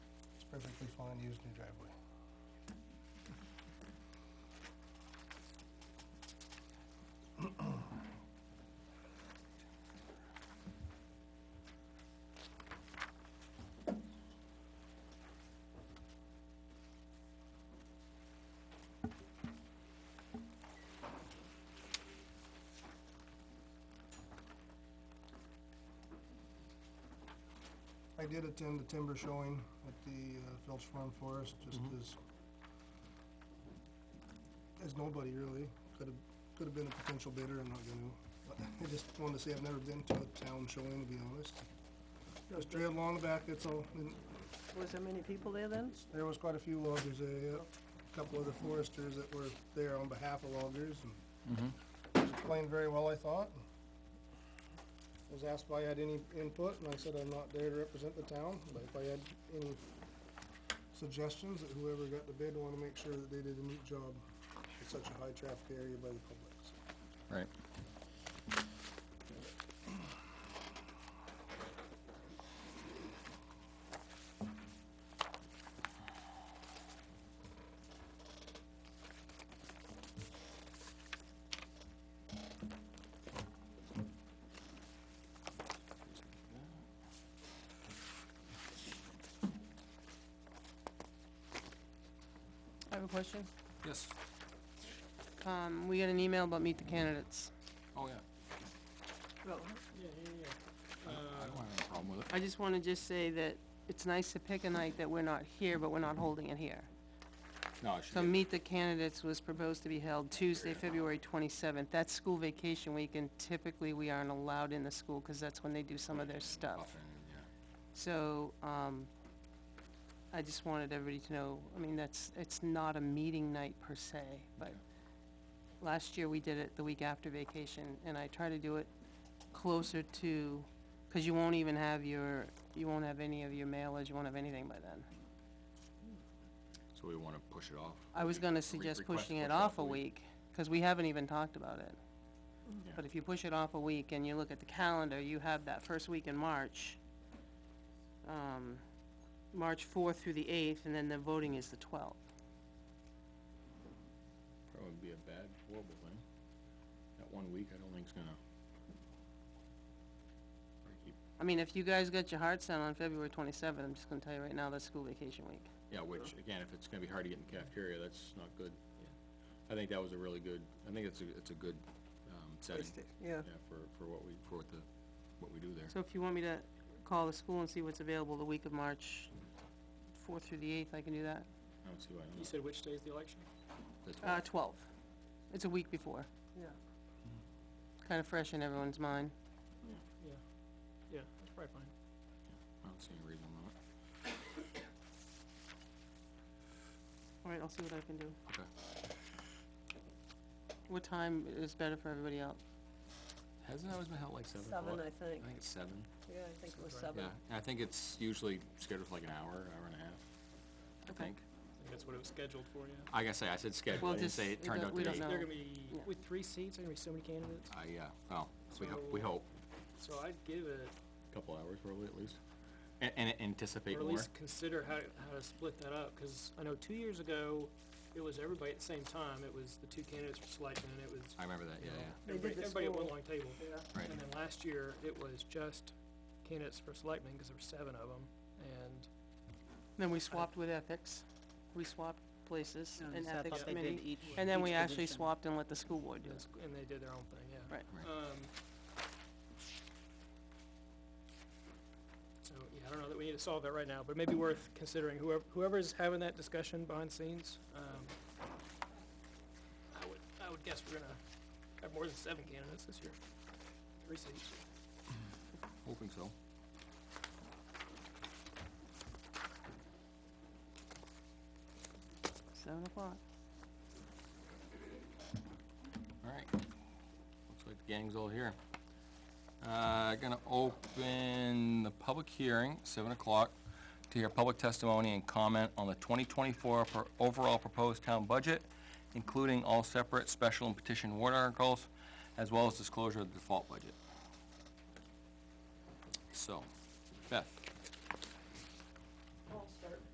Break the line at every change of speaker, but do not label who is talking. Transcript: on used new driveway. I did attend the timber showing at the uh, Phelps Farm Forest, just
Mhm.
as, as nobody really, could have, could have been a potential bidder, I'm not gonna, but I just wanted to say I've never been to a town showing, to be honest. It was trailed along the back, that's all, and
Was there many people there then?
there was quite a few loggers there, yeah. a couple other foresters that were there on behalf of loggers, and was explained very well, I thought. Was asked if I had any input, and I said I'm not there to represent the town, but if I had any suggestions, that whoever got the bid wanna make sure that they did a neat job in such a high traffic area by the public, so.
Right.
I have a question.
Yes,
Um, we got an email about meet the candidates.
oh, yeah,
Oh.
Yeah, yeah, yeah.
I
Uh,
don't have any problem with it.
I just wanna just say that it's nice to pick a night that we're not here, but we're not holding it here.
No, I should
So
get,
meet the candidates was proposed to be held Tuesday, February twenty-seventh. That's school vacation week and typically we aren't allowed in the school, cause that's when they do some of their stuff.
often, yeah,
So, um, I just wanted everybody to know, I mean, that's, it's not a meeting night per se, but
Okay.
last year we did it the week after vacation, and I try to do it closer to, cause you won't even have your, you won't have any of your mailers, you won't have anything by then.
so we wanna push it off.
I was
Re-
gonna
re-
suggest
request
pushing
push
it off a week, cause we haven't even talked about it.
Yeah.
But if you push it off a week and you look at the calendar, you have that first week in March. Um, March fourth through the eighth, and then the voting is the twelfth.
That would be a bad, horrible thing. That one week, I don't think's gonna. I keep-
I mean, if you guys got your hearts set on February twenty-seventh, I'm just gonna tell you right now, that's school vacation week.
Yeah, which, again, if it's gonna be hard to get in cafeteria, that's not good. I think that was a really good, I think it's a, it's a good, um, setting,
Yeah.
yeah, for, for what we, for what the, what we do there.
So if you want me to call the school and see what's available the week of March fourth through the eighth, I can do that.
I don't see why
You
not.
said which day is the election?
The
Uh,
12th.
twelve. It's a week before.
Yeah.
Kinda fresh in everyone's mind.
Yeah, yeah, that's probably fine.
I don't see any reason why not.
All right, I'll see what I can do.
Okay.
What time is better for everybody else?
Hasn't it always been held like seven
Seven,
o'clock?
I think.
I think it's seven.
Yeah, I think it was seven.
Yeah, I think it's usually scheduled for like an hour, hour and a half, I
Okay.
think.
I think that's what it was scheduled for, yeah.
Like I say, I said scheduled,
Well,
I didn't
just-
say it
we
turned
don't-
out
we
to
don't
be.
know.
There are gonna be,
Yeah.
with three seats, there are gonna be so many candidates,
I, yeah, well, we hope, we
So-
hope,
so I'd give it,
couple hours probably at least. And, and anticipate
or at
more.
least consider how, how to split that up, cause I know two years ago, it was everybody at the same time, it was the two candidates for selection, and it was
I remember that, yeah, yeah,
They did
everybody,
the
everybody at one
school.
long table.
right.
And then last year, it was just candidates for selectmen, cause there were seven of them, and
Then we swapped with ethics, we swapped places in ethics committee,
each.
and then
each
we actually
division.
swapped and let the school board do
And
it.
s- And they did their own thing, yeah.
Right.
Right.
Um. So, yeah, I don't know that we need to solve that right now, but maybe worth considering whoever, whoever's having that discussion behind the scenes, um. I would, I would guess we're gonna have more than seven candidates this year. Three seats.
Hoping so.
Seven o'clock.
All right. Looks like the gang's all here. Uh, gonna open the public hearing, seven o'clock, to hear public testimony and comment on the twenty twenty-four overall proposed town budget, including all separate special and petition warrant articles, as well as disclosure of the default budget. So,